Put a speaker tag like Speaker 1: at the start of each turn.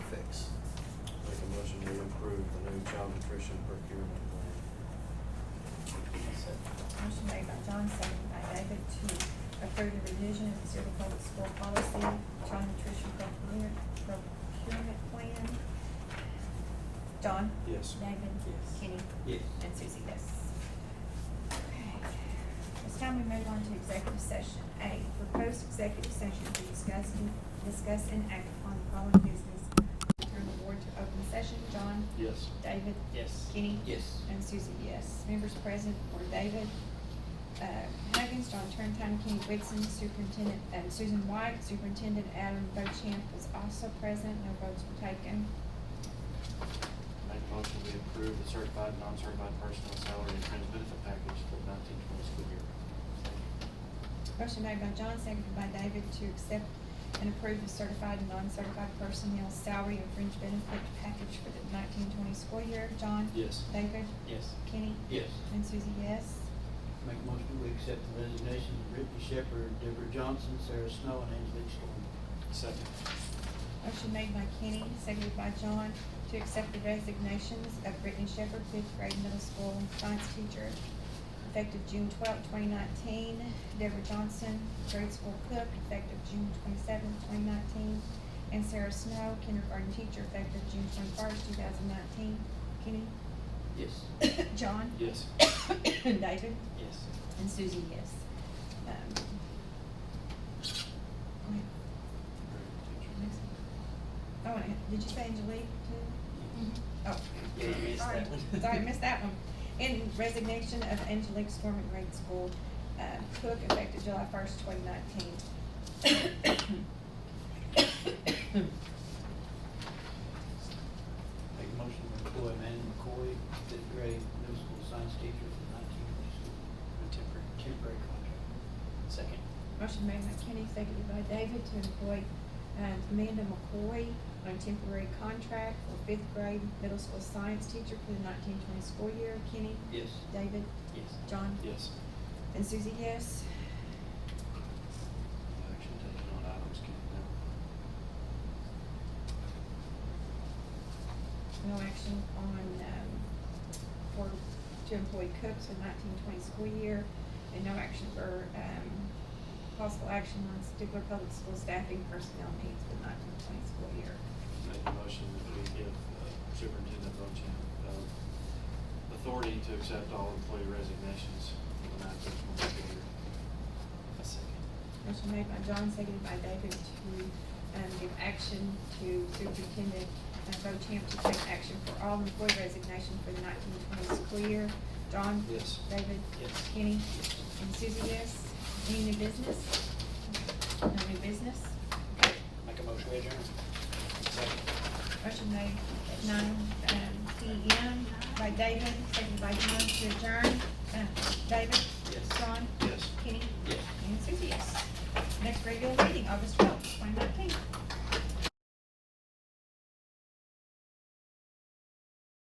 Speaker 1: and child nutrition procurement plan.
Speaker 2: Motion made by John, seconded by David to approve the revision of Missouri Public School Policy, Child Nutrition Procurement, Procurement Plan. John?
Speaker 1: Yes.
Speaker 2: David?
Speaker 3: Yes.
Speaker 2: Kenny?
Speaker 3: Yes.
Speaker 2: And Susie, yes. Okay. It's time we move on to executive session. A, proposed executive session to discuss, discuss and act upon the following business. Return the board to open session. John?
Speaker 1: Yes.
Speaker 2: David?
Speaker 3: Yes.
Speaker 2: Kenny?
Speaker 3: Yes.
Speaker 2: And Susie, yes. Members present were David uh, Huggins, John Turntime, Kenny Whitson, Superintendent, um, Susan White, Superintendent Adam Bochamp was also present, no votes were taken.
Speaker 1: Make a motion we approve the certified, non-certified personnel salary and fringe benefit package for the nineteen twenty school year.
Speaker 2: Motion made by John, seconded by David to accept and approve the certified and non-certified personnel salary and fringe benefit package for the nineteen twenty school year. John?
Speaker 1: Yes.
Speaker 2: David?
Speaker 3: Yes.
Speaker 2: Kenny?
Speaker 3: Yes.
Speaker 2: And Susie, yes.
Speaker 4: Make a motion to accept the resignation of Brittany Shepherd, Deborah Johnson, Sarah Snow, and Angelique Storm.
Speaker 1: Second.
Speaker 2: Motion made by Kenny, seconded by John, to accept the resignations of Brittany Shepherd, fifth grade middle school science teacher, effective June twelfth, twenty nineteen, Deborah Johnson, grade school cook, effective June twenty-seventh, twenty nineteen, and Sarah Snow, kindergarten teacher, effective June twenty-first, two thousand nineteen. Kenny?
Speaker 3: Yes.
Speaker 2: John?
Speaker 1: Yes.
Speaker 2: David?
Speaker 3: Yes.
Speaker 2: And Susie, yes. Um, go ahead. Oh, and did you say Angelique too? Oh.
Speaker 3: Yeah, I missed
Speaker 2: sorry.
Speaker 3: that one.
Speaker 2: Sorry, missed that one. And resignation of Angelique Storm at grade school, uh, cook effective July first, twenty nineteen.
Speaker 4: Make a motion to employ Amanda McCoy, fifth grade middle school science teacher for the nineteen twenty school,
Speaker 3: Temporary.
Speaker 4: temporary contract.
Speaker 3: Second.
Speaker 2: Motion made by Kenny, seconded by David to employ, um, Amanda McCoy on a temporary contract for fifth grade middle school science teacher for the nineteen twenty school year. Kenny,
Speaker 4: Yes.
Speaker 2: David,
Speaker 3: Yes.
Speaker 2: John,
Speaker 1: Yes.
Speaker 2: and Susie, yes.
Speaker 1: Action taken on items carried down.
Speaker 2: No action on, um, for, to employ cooks for nineteen twenty school year, and no action for, um, possible action on Stigler Public School staffing personnel needs for the nineteen twenty school year.
Speaker 1: Make a motion that we give uh, Superintendent Bochamp uh, authority to accept all employee resignations for the nineteen twenty school year.
Speaker 3: A second.
Speaker 2: Motion made by John, seconded by David to, um, give action to Superintendent, uh, Bochamp to take action for all employee resignation for the nineteen twenty school year. John?
Speaker 1: Yes.
Speaker 2: David?
Speaker 3: Yes.
Speaker 2: Kenny? And Susie, yes. Any new business? No new business?
Speaker 3: Make a motion, we adjourn. Second.
Speaker 2: Motion made at nine, um, P M by David, seconded by John to adjourn. Uh, David?
Speaker 3: Yes.
Speaker 2: John?
Speaker 1: Yes.
Speaker 2: Kenny?
Speaker 3: Yes.
Speaker 2: And Susie, yes. Next regular meeting, August twelfth.